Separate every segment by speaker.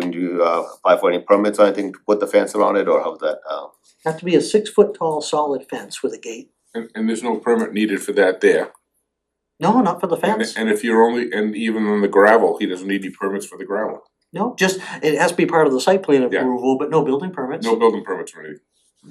Speaker 1: you uh apply for any permits or anything to put the fence around it or how that uh?
Speaker 2: Have to be a six foot tall solid fence with a gate.
Speaker 3: And and there's no permit needed for that there.
Speaker 2: No, not for the
Speaker 3: And
Speaker 2: fence.
Speaker 3: and if you're only, and even on the gravel, he doesn't need any permits for the gravel.
Speaker 2: No, just, it has to be part of the site plan
Speaker 3: Yeah.
Speaker 2: approval, but no building permits.
Speaker 3: No building permits or anything.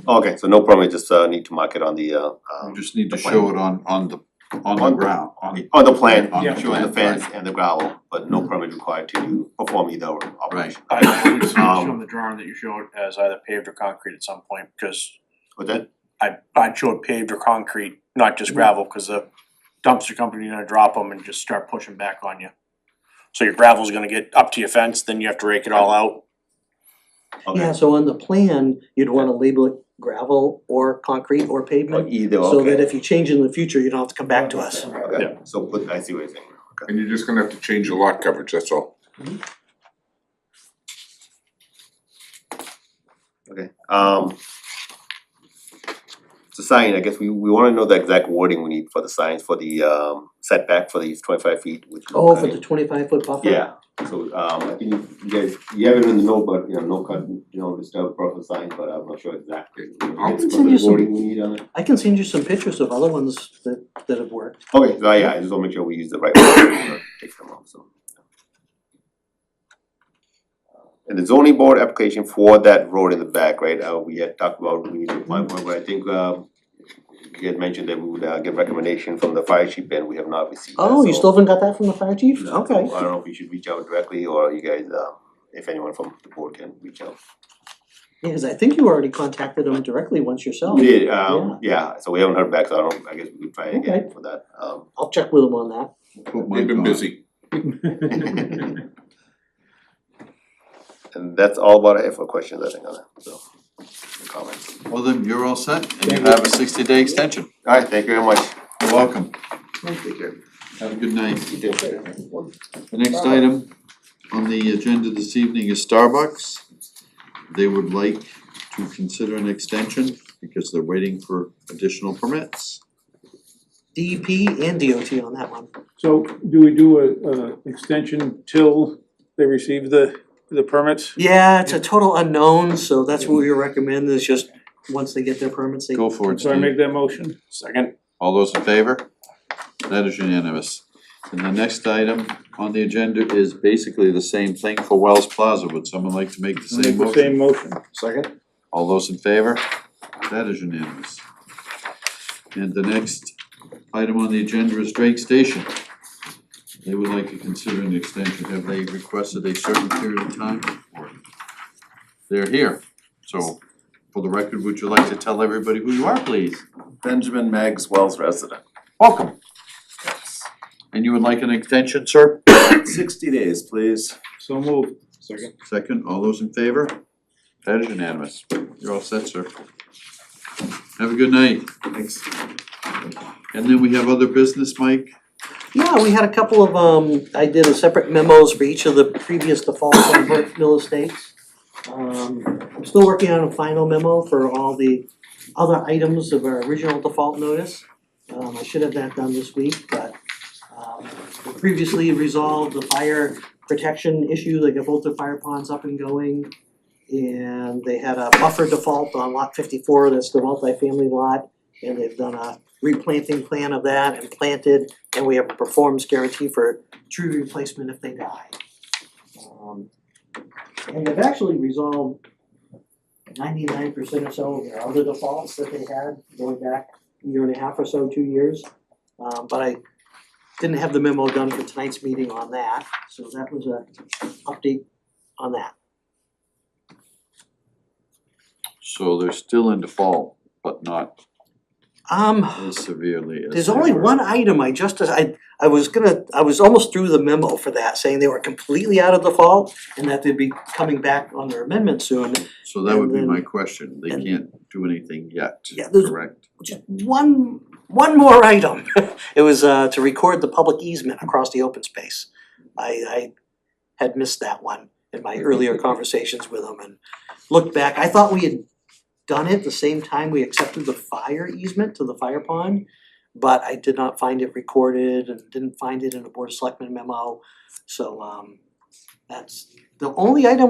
Speaker 1: Okay, so no permit, just uh need to mark it on the uh
Speaker 4: You
Speaker 1: um
Speaker 4: just need to
Speaker 1: The plan.
Speaker 4: show it on on the on
Speaker 1: On
Speaker 4: the
Speaker 1: the-
Speaker 4: ground, on
Speaker 1: on the plan,
Speaker 4: On the
Speaker 1: showing the
Speaker 4: plan, right.
Speaker 1: fence and the gravel, but no permit required to perform either operation.
Speaker 5: I believe it's
Speaker 1: Um,
Speaker 5: from the drawing that you showed as either paved or concrete at some point, because
Speaker 1: But then,
Speaker 5: I I showed paved or concrete, not just gravel, cause the dumpster company gonna drop them and just start pushing back on you. So your gravel's gonna get up to your fence, then you have to rake it all out.
Speaker 2: Yeah,
Speaker 1: okay,
Speaker 2: so on the plan, you'd wanna label it gravel or concrete or
Speaker 1: or
Speaker 2: pavement,
Speaker 1: Oh, either,
Speaker 2: so that
Speaker 1: okay,
Speaker 2: if you change in the future, you don't have to come back to us.
Speaker 1: okay, so put, I see what you're saying, okay.
Speaker 3: And you're just gonna have to change your lot coverage, that's all.
Speaker 1: Okay, um. The sign, I guess we we wanna know the exact wording we need for the signs for the um setback for these twenty five feet, which.
Speaker 2: Oh, for the twenty five foot buffer?
Speaker 1: Yeah, so um I think you guys, you have it in the note, but you know, no cut, you know, disturb proper sign, but I'm not sure exactly.
Speaker 3: I'll
Speaker 1: It's
Speaker 2: send you
Speaker 1: the
Speaker 2: some-
Speaker 1: wording we need on it.
Speaker 2: I can send you some pictures of other ones that that have worked.
Speaker 1: Okay, so yeah, I just wanna make sure we use the right one, or take them off, so. Uh, And the zoning board application for that road in the back, right, uh, we had talked about, we need to apply for, it, but I think, um. You had mentioned that we would uh get recommendation from the fire chief, and we have not received that,
Speaker 2: Oh, you
Speaker 1: so-
Speaker 2: still haven't got that from the fire chief?
Speaker 1: No,
Speaker 2: Okay.
Speaker 1: so I don't know if you should reach out directly, or you guys, uh, if anyone from the board can reach out.
Speaker 2: Yeah, cause I think you already contacted them directly once yourself.
Speaker 1: We did, um, yeah, so we haven't heard back, so I don't, I guess we could try again
Speaker 2: Okay.
Speaker 1: for that, um.
Speaker 2: I'll check with them on that.
Speaker 4: put
Speaker 3: They've
Speaker 4: Mike uh,
Speaker 3: been
Speaker 4: on.
Speaker 3: busy.
Speaker 1: And that's all about I have for questions, I think, on that, so, comments.
Speaker 4: Well, then you're all set and you have a sixty day extension.
Speaker 1: Alright, thank you very much.
Speaker 4: You're welcome.
Speaker 1: Take care.
Speaker 4: Have a good night.
Speaker 1: You too.
Speaker 4: The next item on the agenda this evening is Starbucks. They would like to consider an extension because they're waiting for additional permits.
Speaker 2: DEP E and DOT on that one.
Speaker 6: So do we do a, uh, extension till they receive the, the permits?
Speaker 2: Yeah, it's a total unknown, so that's what we recommend is just, once they get their permits, they.
Speaker 4: Go for it,
Speaker 6: So I
Speaker 4: Steve.
Speaker 6: make that motion?
Speaker 5: Second,
Speaker 4: All those in favor? That is unanimous. And the next item on the agenda is basically the same thing for Wells Plaza. Would someone like to make the
Speaker 6: Make
Speaker 4: same
Speaker 6: the
Speaker 4: motion?
Speaker 6: same motion.
Speaker 1: Second?
Speaker 4: All those in favor? That is unanimous. And the next item on the agenda is Drake Station. They would like to consider an extension. Have they requested a certain period of time? Or- They're here. So for the record, would you like to tell everybody who you are, please?
Speaker 7: Benjamin Meggs, Wells resident.
Speaker 4: Welcome. And you would like an extension, sir?
Speaker 7: Sixty days, please.
Speaker 6: So moved. Second.
Speaker 4: Second, all those in favor? That is unanimous. You're all set, sir. Have a good night.
Speaker 7: Thanks.
Speaker 4: And then we have other business, Mike?
Speaker 2: Yeah, we had a couple of, um, I did a separate memos for each of the previous defaults on Burke Mill Estates. Um, I'm still working on a final memo for all the other items of our original default notice. Um, I should have that done this week, but, um, we previously resolved the fire protection issue, they got both the fire ponds up and going. And they had a buffer default on lot fifty-four, that's the multifamily lot, and they've done a replanting plan of that and planted and we have a performance guarantee for tree replacement if they die. Um, And they've actually resolved ninety-nine percent or so of their other defaults that they had going back a year and a half or so, two years. Um, but I didn't have the memo done for tonight's meeting on that, so that was a update on that.
Speaker 4: So they're still in default, but not
Speaker 2: Um,
Speaker 4: as severely as
Speaker 2: There's
Speaker 4: they
Speaker 2: only
Speaker 4: were.
Speaker 2: one item I just, I, I was gonna, I was almost through the memo for that, saying they were completely out of default and that they'd be coming back on their amendment soon.
Speaker 4: So that would be
Speaker 2: and
Speaker 4: my
Speaker 2: then-
Speaker 4: question. They
Speaker 2: and-
Speaker 4: can't do anything yet,
Speaker 2: Yeah, there's-
Speaker 4: correct?
Speaker 2: Just one, one more item. It was, uh, to record the public easement across the open space. I, I had missed that one in my earlier conversations with them and looked back. I thought we had done it the same time we accepted the fire easement to the fire pond. But I did not find it recorded and didn't find it in a board of selectmen memo. So, um, that's the only item